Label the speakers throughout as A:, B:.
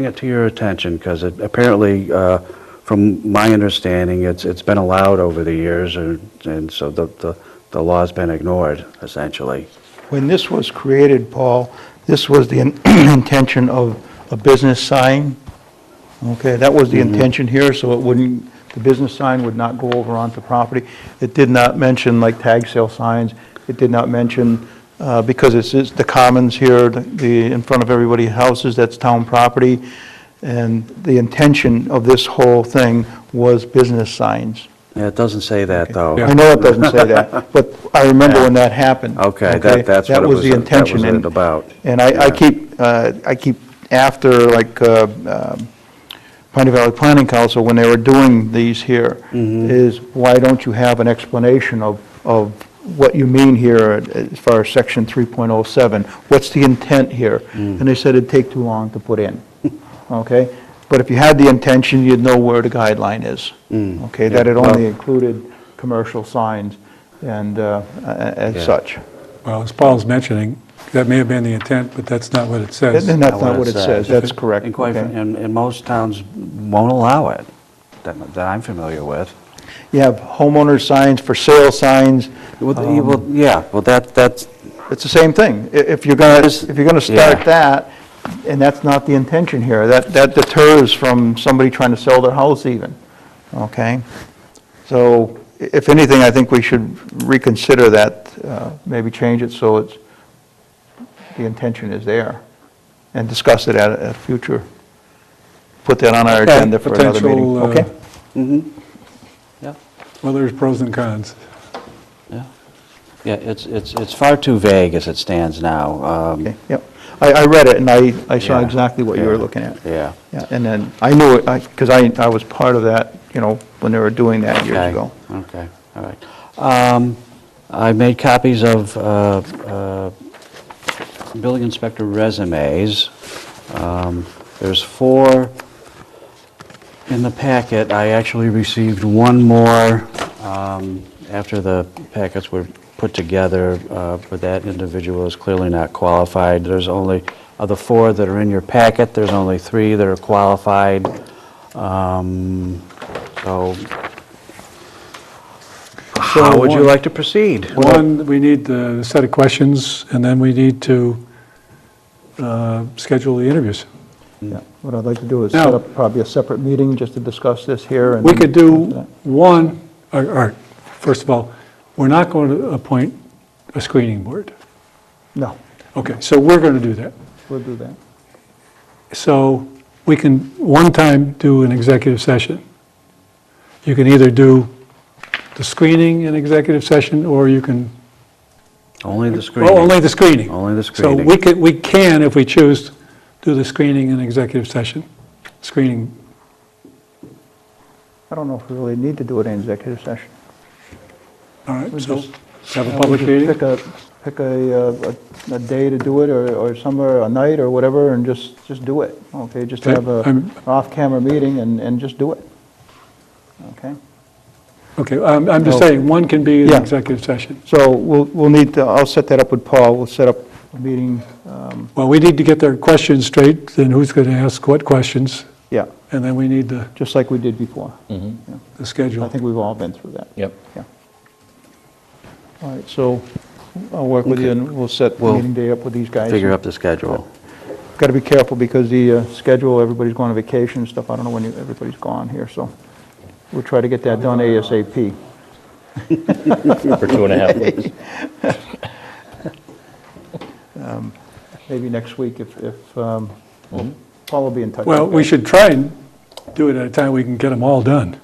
A: bring it to your attention, because it apparently, uh, from my understanding, it's, it's been allowed over the years, and and so the, the the law's been ignored, essentially.
B: When this was created, Paul, this was the in- intention of a business sign. Okay, that was the intention here, so it wouldn't, the business sign would not go over onto property. It did not mention like tag sale signs. It did not mention, uh, because it's, it's the commons here, the- the, in front of everybody's houses, that's town property. And the intention of this whole thing was business signs.
A: Yeah, It doesn't say that, though.
B: I know it doesn't say that, but I remember when that happened.
A: Okay, that, that's what it was,
B: the
A: that was
B: intention,
A: it
B: and-
A: about.
B: And I, I
A: Yeah.
B: keep, uh, I keep after, like, uh, um, Pioneer Valley Planning Council, when they were doing these here,
A: Mm-hmm.
B: is why don't you have an explanation of, of what you mean here as far as section 3.07? What's the intent here?
A: Mm.
B: And they said it'd take too long to put in, okay? But if you had the intention, you'd know where the guideline is,
A: Mm.
B: okay? That it only included commercial signs and, uh, a- a-
A: Yeah.
B: as such.
C: Well, as Paul's mentioning, that may have been the intent, but that's not what it says.
B: And that's not what it says, that's correct.
A: And quite,
B: okay?
A: and, and most towns won't allow it, that, that I'm familiar with.
B: You have homeowner signs, for sale signs,
A: Well, the- well, yeah, well, that, that's,
B: it's the same thing. I- If you're going to,
A: This-
B: if you're going to
A: yeah.
B: start that, and that's not the intention here, that, that deters from somebody trying to sell their house even, okay? So i- if anything, I think we should reconsider that, uh, maybe change it so it's, the intention is there, and discuss it at a at a future, put that on our
C: Okay.
B: agenda for another meeting,
C: Potential, uh,
B: okay?
A: yeah.
C: Well, there's pros and cons.
A: Yeah, yeah. it's, it's, it's far too vague as it stands now. um,
B: Okay, yep. I, I read it, and I, I saw
A: yeah,
B: exactly what you were
A: yeah,
B: looking at.
A: Yeah,
B: Yeah, and then, I knew it, because I, I was part of that, you know, when they were doing that years
A: okay,
B: ago.
A: okay, all right. Um, I made copies of uh, uh, building inspector resumes. Um, There's four in the packet. I actually received one more um, after the packets were put together, uh, but that individual is clearly not qualified. There's only, of the four that are in your packet, there's only three that are qualified. Um, So, how would you
C: one-
A: like to proceed?
C: One, we need the set of questions, and then we need to uh, schedule the interviews.
B: Yeah. What I'd like to do is
C: Now-
B: set up probably a separate meeting just to discuss this here and.
C: We could do one, all right, first of all, we're not going to appoint a screening board.
B: No,
C: Okay, so we're going to do that.
B: we'll do that.
C: So we can, one time, do an executive session. You can either do the screening in executive session, or you can
A: Only the
C: Well, only
A: screening.
C: the screening.
A: Only the
C: So
A: screening.
C: we could, we can, if we choose, do the screening in executive session, screening.
B: I don't know if we really need to do it in executive session.
C: All right, so
B: just-
C: have a
B: Uh, we
C: public
B: just Pick
C: meeting.
B: a, pick a, uh, a, a day to do it, or, or somewhere, a night or whatever, and just, just do it, okay? Just
C: Okay,
B: have a
C: I'm-
B: off-camera meeting and, and just do it, okay?
C: Okay, I'm, I'm just
B: No.
C: saying, one can be in
B: Yeah.
C: executive session.
B: So we'll, we'll need, to- I'll set that up with Paul, we'll set up a meeting, um,
C: Well, we need to get their questions straight, then who's going to ask what questions,
B: yeah,
C: and then we need the,
B: just like we did before.
A: Mm-hmm.
C: the
B: I
C: schedule.
B: think we've all been through that.
D: Yep.
B: Yeah. All right, so I'll work with you and we'll set the
A: We'll
B: meeting day up with these guys.
A: Figure up the schedule.
B: Got to be careful because the uh, schedule, everybody's going on vacation and stuff, I don't know when you- everybody's gone here, so we'll try to get that done ASAP.
D: For two and a half weeks.
B: Maybe next week if, if, um,
A: Mm-hmm.
B: Paul will be in touch.
C: Well,
B: with
C: we
B: that.
C: should try and do it at a time we can get them all done.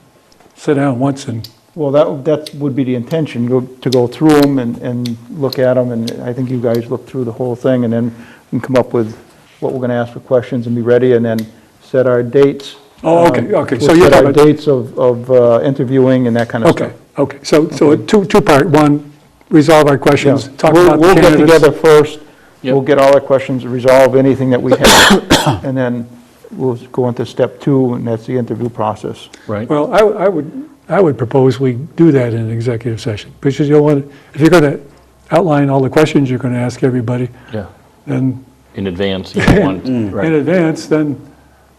C: Sit down once and,
B: Well, that, that would be the intention, go- to go through them and, and look at them, and I think you guys look through the whole thing, and then we can come up with what we're gonna ask for questions and be ready, and then set our dates.
C: Oh, okay,
B: Um,
C: okay, so
B: We'll
C: you're
B: set our
C: talking about-
B: dates of, of uh, interviewing and that kind of stuff.
C: okay, okay. So, so a two, two-part, one, resolve our
B: Yeah.
C: questions, talk
B: We'll-
C: about the
B: We'll get
C: candidates.
B: together first, we'll
D: Yep.
B: get all our questions, resolve anything that we have, and then we'll go into step two, and that's the interview process.
D: Right.
C: Well, I I would, I would propose we do that in an executive session, because you don't want, if you're going to outline all the questions you're going to ask everybody,
D: Yeah.
C: then
D: In advance, you don't want,
C: in
D: right.
C: advance, then